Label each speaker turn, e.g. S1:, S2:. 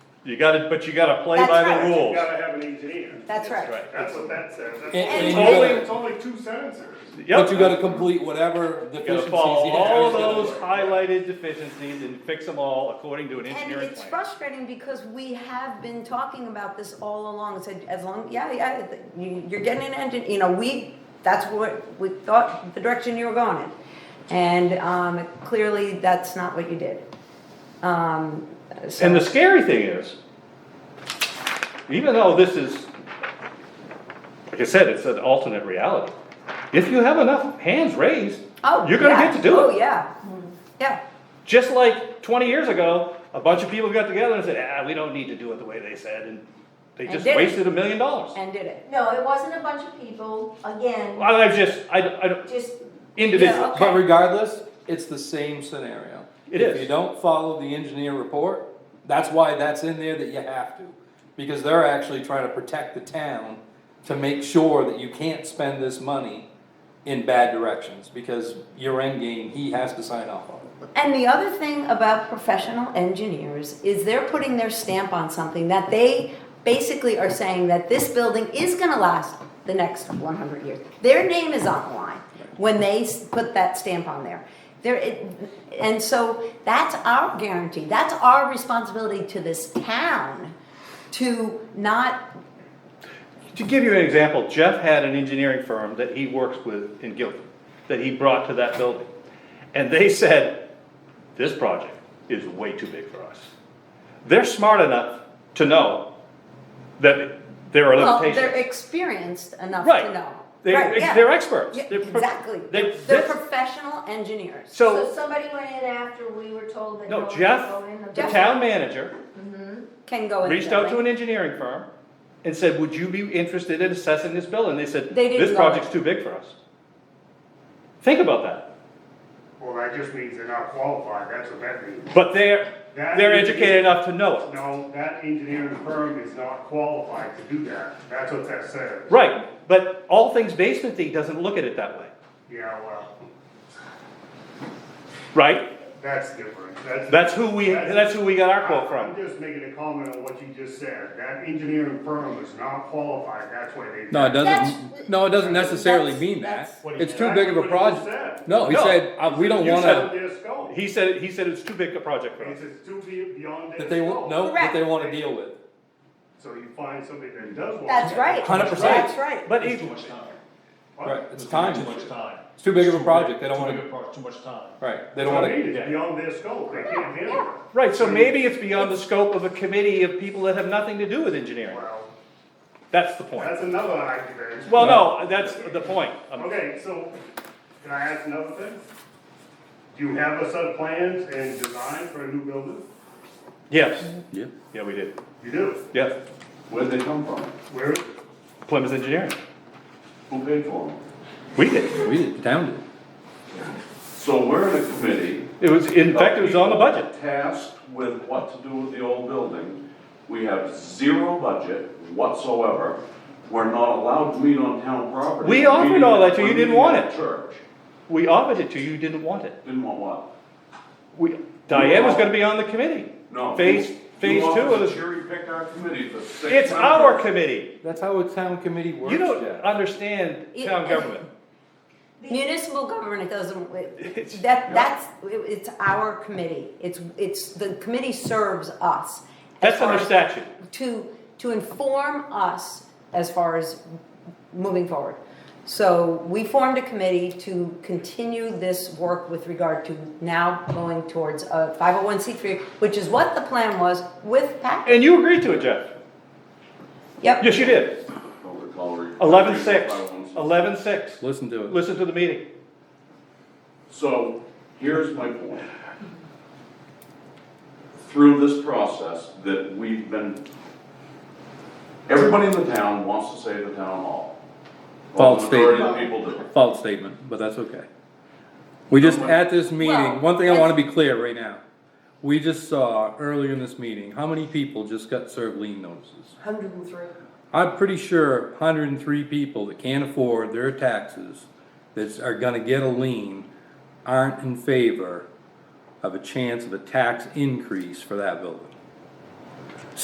S1: You gotta, but you gotta play
S2: That's
S1: by the
S2: right.
S1: rules.
S3: gotta have an engineer.
S2: That's right.
S1: Right.
S3: That's what that says. That's
S4: And-
S3: It's
S2: and you
S3: only,
S4: gotta-
S3: it's only two sentences.
S1: Yep.
S4: But you gotta complete whatever
S1: You gotta
S4: deficiencies.
S1: follow
S4: you
S1: all of
S4: have.
S1: those highlighted deficiencies and fix them all according to an
S2: And
S1: engineering
S2: it's
S1: plan.
S2: frustrating because we have been talking about this all along, and said, as long, yeah, yeah, you- you're getting an engine, you know, we, that's what, we thought, the direction you were going in. And, um, clearly, that's not what you did. Um, so-
S1: And the scary thing is, even though this is, like I said, it's an alternate reality. If you have enough hands raised,
S2: Oh,
S1: you're gonna
S2: yeah.
S1: get to do
S2: Oh,
S1: it.
S2: yeah, yeah,
S1: Just like twenty years ago, a bunch of people got together and said, ah, we don't need to do it the way they said, and they
S2: And
S1: just
S2: did it.
S1: wasted a million dollars.
S2: and did it.
S5: No, it wasn't a bunch of people, again,
S1: Well, I've just, I, I don't,
S5: just,
S1: individual,
S4: But regardless, it's the same scenario.
S1: It
S4: If
S1: is.
S4: you don't follow the engineer report, that's why that's in there that you have to. Because they're actually trying to protect the town to make sure that you can't spend this money in bad directions. Because your end game, he has to sign off on it.
S2: And the other thing about professional engineers is they're putting their stamp on something that they basically are saying that this building is gonna last the next one hundred years. Their name is on the line when they s- put that stamp on there. There, it- and so that's our guarantee, that's our responsibility to this town to not,
S1: To give you an example, Jeff had an engineering firm that he works with in Guilford, that he brought to that building. And they said, this project is way too big for us. They're smart enough to know that there are
S2: well, they're
S1: limitations.
S2: experienced enough to
S1: Right.
S2: know.
S1: They-
S2: Right, yeah.
S1: They're experts.
S2: Yeah,
S1: They're pro-
S2: Exactly,
S1: they-
S2: they're
S1: they-
S2: professional engineers.
S5: so
S1: So,
S5: somebody went in after we were told that.
S1: no,
S5: one
S1: Jeff,
S5: could go in the
S1: the
S5: building.
S1: town manager,
S2: can go in. the
S1: reached out to
S2: building.
S1: an engineering firm and said, would you be interested in assessing this building? They said,
S2: They didn't
S1: this
S2: know
S1: project's
S2: it.
S1: too big for us. Think about that.
S3: Well, that just means they're not qualified, that's what that means.
S1: But they're,
S3: That
S1: they're
S3: is-
S1: educated enough to know it.
S3: No, that engineering firm is not qualified to do that, that's what that says.
S1: Right, but all things basement thing doesn't look at it that way,
S3: Yeah, well,
S1: right?
S3: that's different, that's.
S1: That's who we, that's who we got our quote
S3: I'm
S1: from.
S3: just making a comment on what you just said, that engineering firm is not qualified, that's why they.
S4: No, it
S5: That's-
S4: doesn't, no, it doesn't necessarily
S2: that's-
S4: mean that.
S2: that's-
S3: What he
S4: It's
S3: said.
S4: too big of a
S3: That's what he just
S4: project.
S3: said.
S4: No, he
S1: No.
S4: said, uh, we don't
S1: You
S4: wanna,
S3: Their scope,
S1: He said, he said it's too big a project for us.
S3: it's it's too be- beyond their
S4: that they
S3: scope.
S4: won't, no, that
S2: Correct.
S4: they wanna deal with.
S3: So you find somebody that does want.
S2: That's
S3: that.
S2: right.
S4: 100%.
S2: That's right.
S1: But
S6: It's too
S1: even,
S6: much time.
S3: What?
S4: Right, it's
S6: Too
S4: time.
S6: much time.
S4: It's too big of a
S6: Too
S4: project,
S6: big-
S4: they don't
S6: too
S4: wanna-
S6: big of a pro- Too much time.
S4: Right, they
S3: That's
S4: don't
S3: what I
S4: wanna.
S3: mean, it's beyond their scope, they can't handle it.
S1: right, so maybe it's beyond the scope of a committee of people that have nothing to do with engineering.
S3: Well,
S1: That's the point.
S3: that's another argument.
S1: Well, no, that's the point. Um,
S3: Okay, so, can I ask another thing? Do you have a set of plans and design for a new building?
S1: Yes,
S4: Yeah.
S1: yeah, we did.
S3: You do,
S1: Yeah,
S7: Where did they come from?
S3: where,
S1: Plymouth Engineering.
S7: Who paid for them?
S1: We did.
S4: We did, the town did.
S7: So we're in a committee.
S1: It was, in fact, it was on the budget.
S7: Tasked with what to do with the old building. We have zero budget whatsoever. We're not allowed to meet on town property.
S1: We offered
S7: Meeting-
S1: all that to you,
S7: we're
S1: you didn't
S7: meeting
S1: want
S7: at
S1: it.
S7: Church,
S1: We offered it to you, you didn't want it.
S7: didn't want what?
S1: We, Diane was gonna be on the committee.
S7: No.
S1: Phase,
S7: you-
S1: phase
S7: you
S1: two
S7: offered
S1: of
S7: to
S1: the.
S7: Jury pick our committee for six.
S1: It's
S7: members.
S1: our committee.
S4: That's how a town committee works,
S1: You don't
S6: uh,
S4: Jeff.
S1: understand
S2: It-
S1: town government.
S2: Municipal government doesn't,
S1: It's-
S2: it- that, that's, it- it's our committee, it's, it's, the committee serves us. as
S1: That's
S2: far
S1: under
S2: as-
S1: statute.
S2: To, to inform us as far as moving forward. So we formed a committee to continue this work with regard to now going towards uh, oh a 501c3, which is what the plan was with Pat.
S1: And you agreed to it, Jeff.
S2: Yep.
S1: Yes, you did.
S7: Don't recall re-
S1: Eleven six.
S7: I won't-
S1: Eleven six.
S4: Listen to it.
S1: Listen to the meeting.
S7: So, here's my point. Through this process that we've been, everybody in the town wants to say the town hall. Well, the
S4: False
S7: majority of
S4: statement.
S7: people do.
S4: False statement, but that's okay. We just, at this
S2: Well,
S4: meeting, one thing I wanna be clear right now. We just saw earlier in this meeting, how many people just got served lien notices?
S5: Hundred and three.
S4: I'm pretty sure hundred and three people that can't afford their taxes, that are gonna get a lien, aren't in favor of a chance of a tax increase for that building.